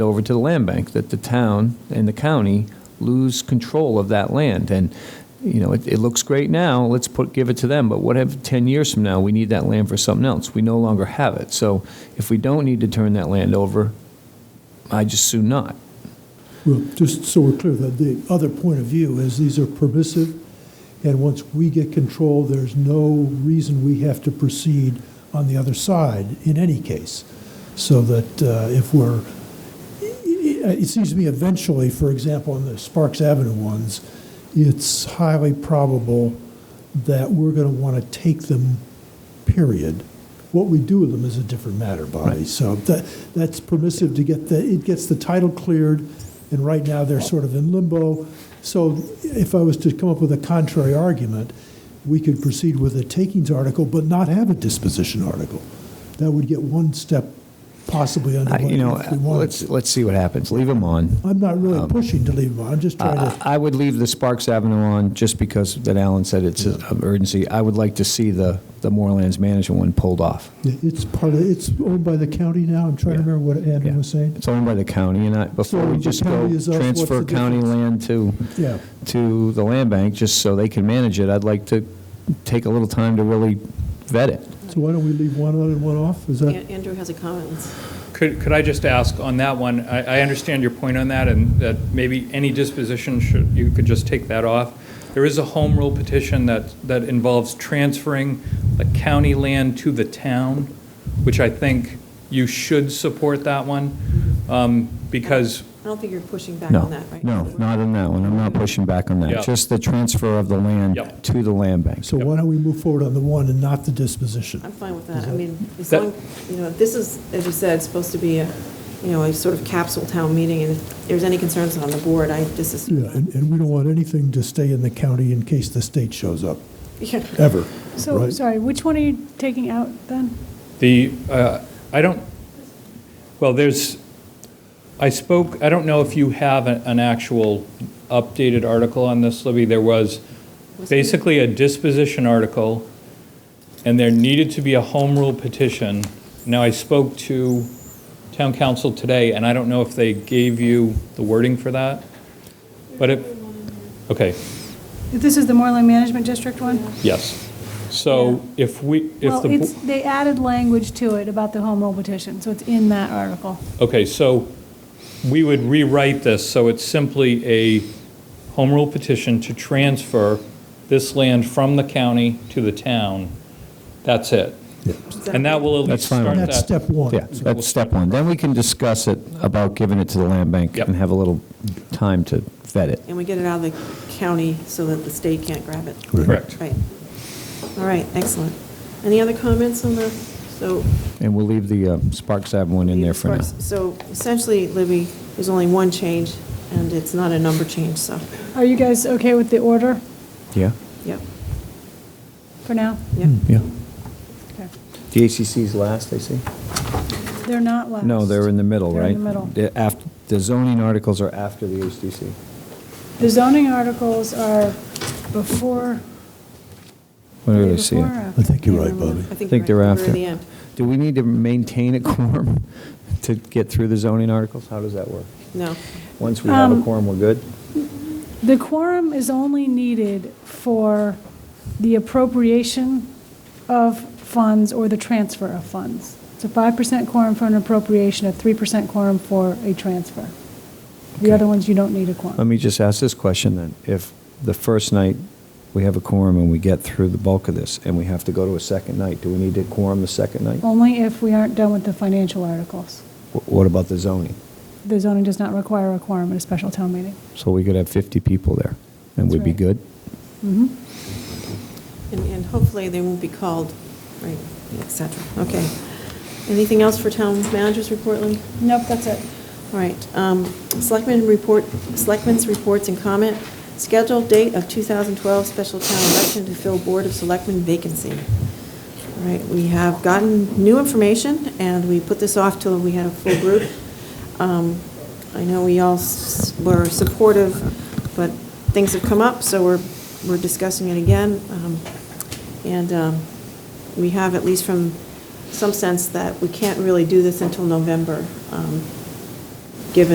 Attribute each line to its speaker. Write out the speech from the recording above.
Speaker 1: over to the land bank, that the town and the county lose control of that land. And, you know, it, it looks great now, let's put, give it to them, but what if 10 years from now, we need that land for something else? We no longer have it. So if we don't need to turn that land over, I just soon not.
Speaker 2: Well, just so we're clear, that the other point of view is these are permissive, and once we get control, there's no reason we have to proceed on the other side in any case. So that uh, if we're, it it seems to me eventually, for example, on the Sparks Avenue ones, it's highly probable that we're going to want to take them, period. What we do with them is a different matter, Bobby. So that, that's permissive to get the, it gets the title cleared, and right now they're sort of in limbo. So if I was to come up with a contrary argument, we could proceed with a takings article, but not have a disposition article. That would get one step possibly under
Speaker 1: I-
Speaker 2: what
Speaker 1: You know,
Speaker 2: if we wanted to.
Speaker 1: let's, let's see what happens. Leave them on.
Speaker 2: I'm not
Speaker 1: Um,
Speaker 2: really pushing to leave them on, I'm just trying
Speaker 1: I
Speaker 2: to,
Speaker 1: I would leave the Sparks Avenue on just because that Alan said it's of urgency. I would like to see the, the Moorlands Management one pulled off.
Speaker 2: it's part of, it's owned by the county now, I'm trying to
Speaker 1: Yeah.
Speaker 2: remember what Andrew
Speaker 1: Yeah.
Speaker 2: was saying.
Speaker 1: It's owned by the county, and I, before we
Speaker 2: the
Speaker 1: just go
Speaker 2: county is us, what's
Speaker 1: transfer
Speaker 2: the
Speaker 1: county land to,
Speaker 2: Yeah.
Speaker 1: to the land bank, just so they can manage it, I'd like to take a little time to really vet it.
Speaker 2: So why don't we leave one on and one off, is that?
Speaker 3: An- Andrew has a comment.
Speaker 4: Could, could I just ask on that one, I, I understand your point on that, and that maybe any disposition should, you could just take that off. There is a home rule petition that, that involves transferring the county land to the town, which I think you should support that one, um, because,
Speaker 3: I don't think you're pushing back
Speaker 1: No,
Speaker 3: on that, right?
Speaker 1: no, not on that one, I'm not pushing back on
Speaker 4: Yeah.
Speaker 1: that, just the transfer of the land
Speaker 4: Yep.
Speaker 1: to the land bank.
Speaker 2: So why don't we move forward on the one and not the disposition?
Speaker 3: I'm fine with that. I mean, as
Speaker 1: Mhm.
Speaker 4: That-
Speaker 3: long, you know, this is, as you said, supposed to be a, you know, a sort of capsule town meeting, and if there's any concerns on the board, I
Speaker 2: Yeah,
Speaker 3: disassume.
Speaker 2: and, and we don't want anything to stay in the county in case the state shows up,
Speaker 3: Yeah.
Speaker 2: ever,
Speaker 5: So,
Speaker 2: right?
Speaker 5: sorry, which one are you taking out then?
Speaker 4: The, uh, I don't, well, there's, I spoke, I don't know if you have a- an actual updated article on this, Libby. There was basically a disposition article, and there needed to be a home rule petition. Now, I spoke to town council today, and I don't know if they gave you the wording for that, but it, okay,
Speaker 5: This is the Moreland Management District one?
Speaker 4: yes. So if we, if
Speaker 5: Well,
Speaker 4: the. bo-
Speaker 5: it's, they added language to it about the home rule petition, so it's in that article.
Speaker 4: Okay, so we would rewrite this, so it's simply a home rule petition to transfer this land from the county to the town. That's it. And that will at
Speaker 1: That's
Speaker 4: least
Speaker 1: fine.
Speaker 4: start
Speaker 2: And that's
Speaker 4: that.
Speaker 2: step one.
Speaker 1: Yeah, that's step one, then we can discuss it about giving it to the land bank
Speaker 4: Yep.
Speaker 1: and have a little time to vet it.
Speaker 3: And we get it out of the county so that the state can't grab it.
Speaker 4: Correct.
Speaker 3: Right. All right, excellent. Any other comments on the, so
Speaker 1: And we'll leave the uh, Sparks Ave one in there for now.
Speaker 3: So essentially, Libby, there's only one change, and it's not a number change, so,
Speaker 5: Are you guys okay with the order
Speaker 1: Yeah?
Speaker 3: yep,
Speaker 5: for now?
Speaker 3: yep.
Speaker 2: hmm,
Speaker 1: Yeah.
Speaker 5: Okay.
Speaker 6: The ACC's last, I see.
Speaker 5: They're not last.
Speaker 1: No, they're in the middle,
Speaker 5: They're
Speaker 1: right?
Speaker 5: in the middle.
Speaker 1: The af- The zoning articles are after the HDC.
Speaker 5: The zoning articles are before,
Speaker 1: What
Speaker 5: are
Speaker 1: did
Speaker 5: they
Speaker 1: I see?
Speaker 5: before or
Speaker 1: it?
Speaker 5: after?
Speaker 2: I think you're right,
Speaker 3: Remember,
Speaker 2: Bobby.
Speaker 1: I think they're
Speaker 3: we're
Speaker 1: after.
Speaker 3: at the end.
Speaker 1: Do we need to maintain a quorum to get through the zoning articles? How does that work?
Speaker 3: No,
Speaker 6: Once we have a
Speaker 5: Um,
Speaker 6: quorum, we're good?
Speaker 5: The quorum is only needed for the appropriation of funds or the transfer of funds. It's a 5% quorum for an appropriation, a 3% quorum for a transfer. The other ones, you don't need a
Speaker 1: Let
Speaker 5: quorum.
Speaker 1: me just ask this question then. If the first night we have a quorum and we get through the bulk of this and we have to go to a second night, do we need to quorum the second night?
Speaker 5: Only if we aren't done with the financial articles.
Speaker 1: Wh- What about the zoning?
Speaker 5: The zoning does not require a quorum at a special town meeting.
Speaker 1: So we could have 50 people there and
Speaker 5: That's
Speaker 1: we'd be
Speaker 5: right.
Speaker 1: good?
Speaker 5: Mhm.
Speaker 3: and and hopefully they won't be called, right, et cetera. Okay. Anything else for town managers report, Libby?
Speaker 5: Nope, that's it.
Speaker 3: All right, um, Selectmen report, Selectmen's reports and comment. Scheduled date of 2012 special town election to fill Board of Selectmen vacancy. All right, we have gotten new information, and we put this off till we had a full group. Um, I know we all s- were supportive, but things have come up, so we're, we're discussing it again. Um, And um, we have, at least from some sense, that we can't really do this until November. Um,